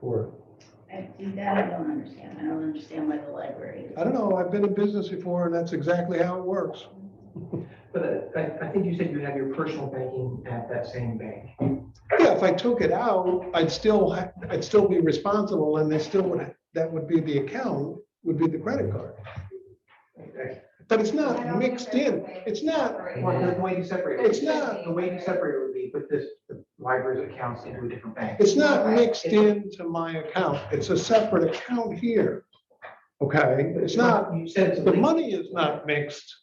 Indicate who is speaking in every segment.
Speaker 1: for it.
Speaker 2: I, see, that I don't understand. I don't understand why the library is.
Speaker 1: I don't know, I've been in business before and that's exactly how it works.
Speaker 3: But uh, I, I think you said you have your personal banking at that same bank.
Speaker 1: Yeah, if I took it out, I'd still, ha- I'd still be responsible and they still would, that would be the account, would be the credit card.
Speaker 3: Okay.
Speaker 1: But it's
Speaker 4: I
Speaker 1: not
Speaker 4: don't think
Speaker 1: mixed
Speaker 4: that's
Speaker 1: in,
Speaker 4: the way
Speaker 1: it's
Speaker 4: to
Speaker 1: not,
Speaker 4: separate
Speaker 3: Well, the
Speaker 4: it.
Speaker 3: way you separate,
Speaker 1: It's
Speaker 3: it-
Speaker 1: not-
Speaker 3: the way you separate it would be put this, the library's accounts into a different bank.
Speaker 1: it's not mixed into my account. It's a separate account here. Okay, it's not,
Speaker 3: You said it's
Speaker 1: the
Speaker 3: linked,
Speaker 1: money is not mixed.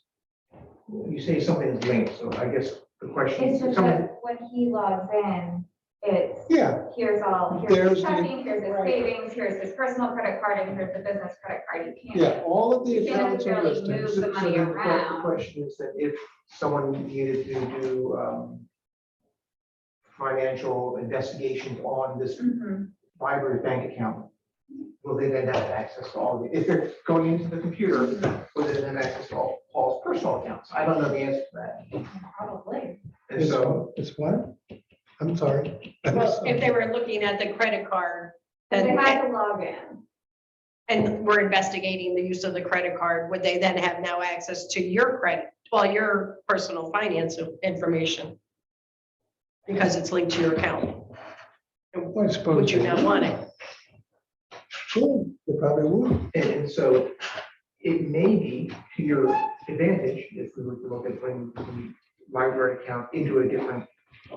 Speaker 3: you say something is linked, so I guess the question.
Speaker 4: It's just
Speaker 3: some-
Speaker 4: that when he logs in, it's,
Speaker 1: Yeah,
Speaker 4: here's all, here's
Speaker 1: There's
Speaker 4: his
Speaker 1: the-
Speaker 4: checking, here's his
Speaker 1: right.
Speaker 4: savings, here's his personal credit card, and here's the business credit card. You can't.
Speaker 1: yeah, all of the
Speaker 4: You can't
Speaker 1: accounts are
Speaker 4: necessarily
Speaker 1: listed.
Speaker 4: move
Speaker 3: So-
Speaker 4: the
Speaker 3: so
Speaker 4: money
Speaker 3: the que-
Speaker 4: around.
Speaker 3: The question is that if someone needed to do um, financial investigations on this
Speaker 4: Mhm.
Speaker 3: library bank account, will they then have access to all, of it? if they're going into the computer, will they then have access to all Paul's personal accounts? I don't know the answer to that.
Speaker 4: Probably.
Speaker 3: And so,
Speaker 1: It's what? I'm sorry. I missed
Speaker 5: Well, if they
Speaker 1: something.
Speaker 5: were looking at the credit card,
Speaker 4: They
Speaker 5: then,
Speaker 4: had to log in.
Speaker 5: and we're investigating the use of the credit card, would they then have now access to your credit, well, your personal finance information? Because it's linked to your account.
Speaker 1: I suppose.
Speaker 5: Would you
Speaker 1: they
Speaker 5: not
Speaker 1: would.
Speaker 5: want it?
Speaker 1: Sure, they probably would.
Speaker 3: and- and so it may be to your advantage if we were to look at putting the library account into a different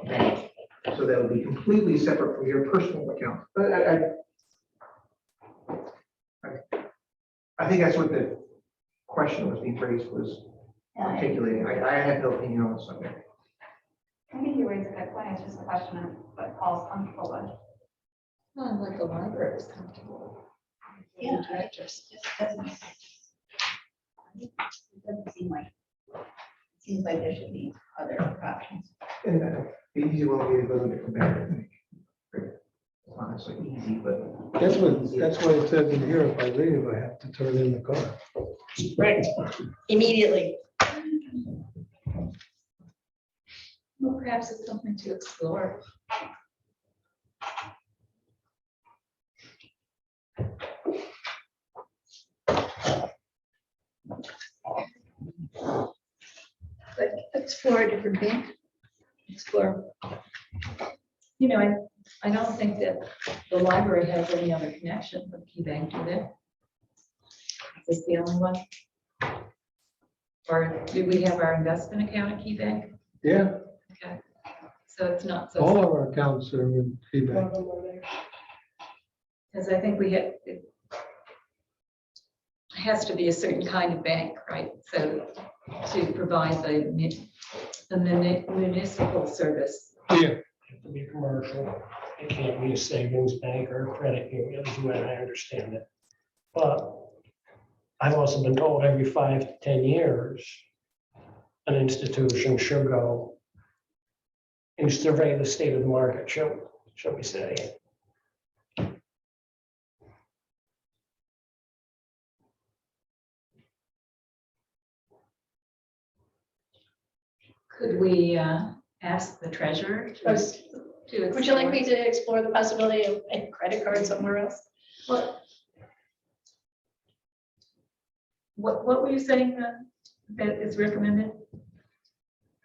Speaker 3: bank. So that would be completely separate from your personal account. But I, I I- I think that's what the question that was being raised was
Speaker 2: I
Speaker 3: articulating. I, I have no opinion on something.
Speaker 4: I think you raised a good point. It's just a question of what Paul's comfortable with.
Speaker 6: Not like the library was comfortable.
Speaker 2: Yeah, it just, just doesn't. It doesn't seem like, it seems like there should be other options.
Speaker 3: And uh, the easy one would be to go to a different bank. I think. It's not necessarily easy, but.
Speaker 1: That's what, that's why it says in here, if I leave, I have to turn in the car.
Speaker 5: Right. Immediately.
Speaker 6: Well, perhaps it's something to explore. Like, explore a different bank, explore. You know, I, I don't think that the library has any other connection with Key Bank, do they? Is this the only one? Or do we have our investment account at Key Bank?
Speaker 1: Yeah,
Speaker 6: Okay, so it's not
Speaker 1: all
Speaker 6: so,
Speaker 1: of our accounts are in feedback.
Speaker 6: because I think we had, it has to be a certain kind of bank, right? So to provide the mu- the muni- municipal service.
Speaker 1: Yeah,
Speaker 7: to be commercial. It can't be a savings bank or a credit union, is when I understand it. But I've also been told every five to ten years, an institution should go and survey the state of the market, shall, shall we say.
Speaker 6: Could we uh, ask the treasurer to?
Speaker 5: Yes.
Speaker 6: to
Speaker 5: Would you like me
Speaker 6: explore-
Speaker 5: to explore the possibility of a credit card somewhere else?
Speaker 6: What, what what were you saying uh, that is recommended?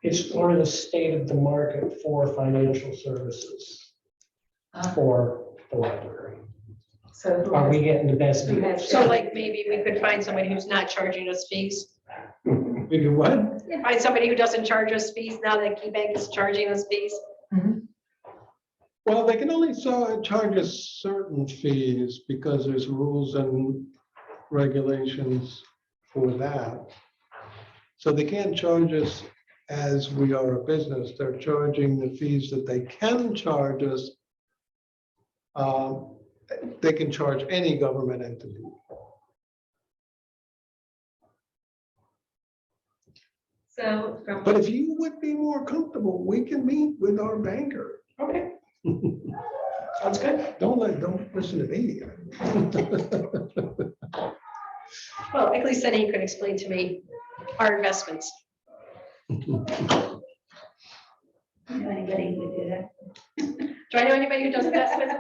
Speaker 7: It's for the state of the market for financial services
Speaker 6: Uh,
Speaker 7: for the library.
Speaker 6: So who
Speaker 7: Are
Speaker 6: has-
Speaker 7: we getting the best
Speaker 6: who
Speaker 7: deal?
Speaker 6: has-
Speaker 5: So like, maybe we could find somebody who's not charging us fees,
Speaker 1: we can what?
Speaker 5: find somebody who doesn't charge us fees now that Key Bank is charging us fees.
Speaker 1: Well, they can only so- charge us certain fees because there's rules and regulations for that. So they can't charge us as we are a business. They're charging the fees that they can charge us. Um, They can charge any government entity.
Speaker 6: So from.
Speaker 1: But if you would be more comfortable, we can meet with our banker.
Speaker 5: Okay. Sounds good.
Speaker 1: Don't let, don't listen to me.
Speaker 5: Well, at least then he could explain to me our investments.
Speaker 2: You know anybody who would do that?
Speaker 5: Do I know anybody who does investments?